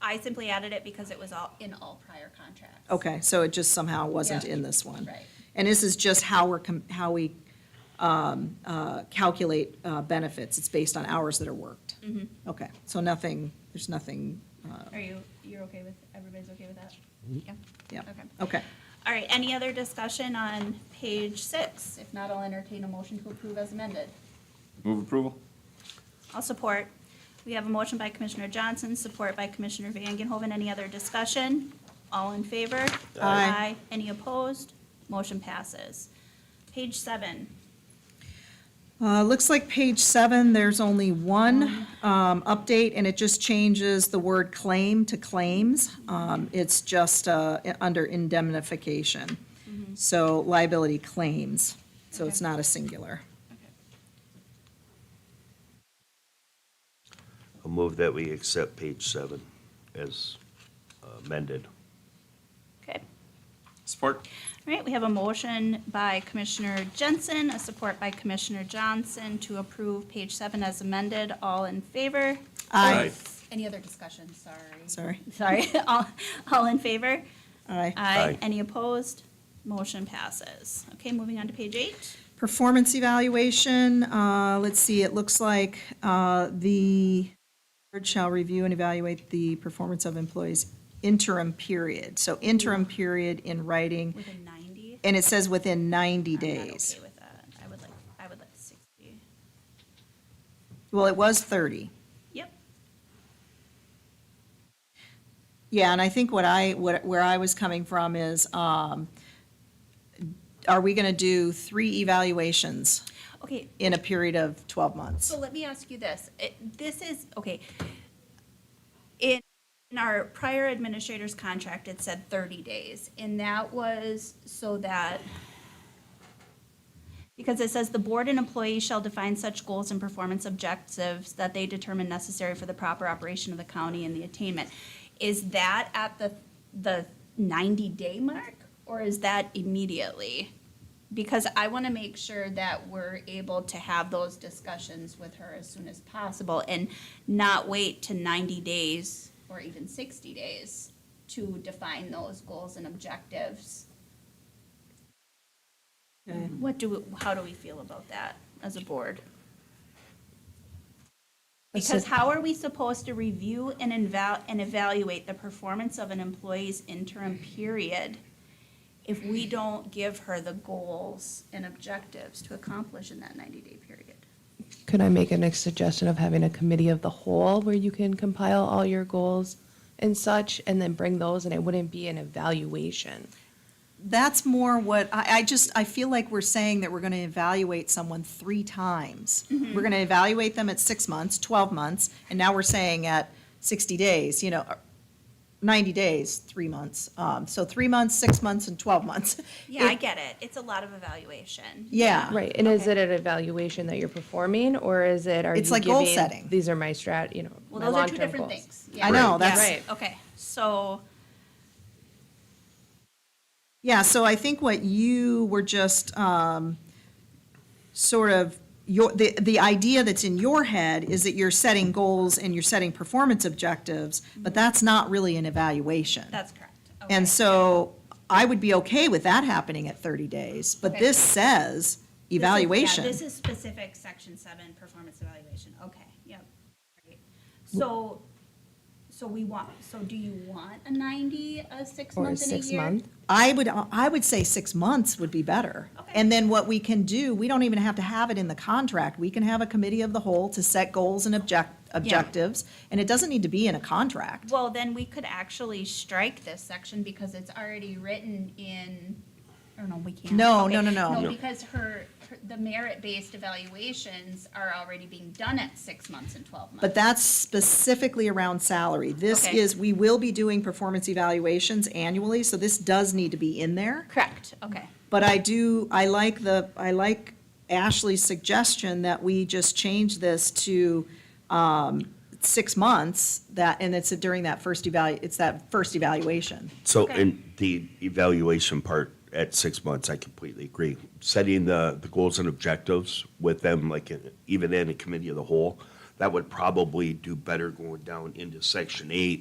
I simply added it because it was all, in all prior contracts. Okay, so it just somehow wasn't Yeah. in this one? Right. And this is just how we're, com- how we um, uh, calculate uh, benefits? It's based on hours that are worked? Mm-hmm. Okay, so nothing, there's nothing, uh, Are you, you're okay with, everybody's okay with that? Yeah. yeah. Oh. Okay. Okay. All right, any other discussion on page six? If not, I'll entertain a motion to approve as amended. Move approval? I'll support. We have a motion by Commissioner Johnson, support by Commissioner Vangenhoven. Any other discussion? All in favor? Aye. Any opposed? Motion passes. Page seven. Uh, Looks like page seven, there's only one um, update, and it just changes the word claim to claims. Um, It's just uh, i- under indemnification, so liability claims, so it's Mm-hmm. Okay. not a singular. I'll move that we accept page seven as uh, amended. Okay. Support? All right, we have a motion by Commissioner Jensen, a support by Commissioner Johnson to approve page seven as amended. All in favor? Aye. Any other discussion? Sorry. Sorry. Sorry. All, all in favor? Aye. Aye. Any opposed? Motion passes. Okay, moving on to page eight. Performance evaluation, uh, let's see, it looks like uh, the board shall review and evaluate the performance of employees interim period. So interim period in writing, Within 90? and it says within 90 I'm not days. okay with that. I would like, I would like 60. Well, it was 30. Yep. Yeah, and I think what I, what, where I was coming from is, um, are we going to do three evaluations Okay, in a period of 12 months? so let me ask you this. It- This is, okay. In in our prior administrator's contract, it said 30 days, and that was so that, because it says the board and employee shall define such goals and performance objectives that they determine necessary for the proper operation of the county and the attainment. Is that at the, the 90-day mark, or is that immediately? Because I want to make sure that we're able to have those discussions with her as soon as possible and not wait to 90 days or even 60 days to define those goals and objectives. Okay. What do, we- how do we feel about that as a board? That's Because it. how are we supposed to review and eval, and evaluate the performance of an employee's interim period if we don't give her the goals and objectives to accomplish in that 90-day period? Could I make a next suggestion of having a committee of the whole where you can compile all your goals and such and then bring those and it wouldn't be an evaluation? That's more what, I, I just, I feel like we're saying that we're going to evaluate someone three times. Mm-hmm. We're going to evaluate them at six months, 12 months, and now we're saying at 60 days, you know, or 90 days, three months. Um, So three months, six months, and 12 months. Yeah, I It- get it. It's a lot of evaluation. Yeah. Right, and is it an evaluation that you're performing or is it, are you It's like goal giving, setting. These are my strat, you know, Well, my those are two long-term different goals." things. I know, Yeah. that's. Right. Okay, so, Yeah, so I think what you were just um, sort of, your, the, the idea that's in your head is that you're setting goals and you're setting performance objectives, but that's not really an evaluation. Mm-hmm. that's correct. Okay. And so I would be okay with that happening at 30 days, but Okay. this says This is- yeah, evaluation. This is specific, section seven, performance evaluation. Okay, yep. Great. So, so we want, so do you want a 90, a six Or month and a year? six month? I would, I would say six months would be better. Okay. And then what we can do, we don't even have to have it in the contract. We can have a committee of the whole to set goals and object, objectives, and it doesn't need to be in a contract. Well, then we could actually strike this section because it's already written in, or no, we can't. No, Okay. no, no, no. No, No. because her, her- the merit-based evaluations are already being done at six months and 12 months. But that's specifically around salary. This Okay. is, we will be doing performance evaluations annually, so this does need to be in there. Correct, okay. But I do, I like the, I like Ashley's suggestion that we just change this to um, six months, that, and it's during that first evalu, it's that first evaluation. So Okay. in the evaluation part at six months, I completely agree. Setting the, the goals and objectives with them, like uh, in- even in a committee of the whole, that would probably do better going down into section eight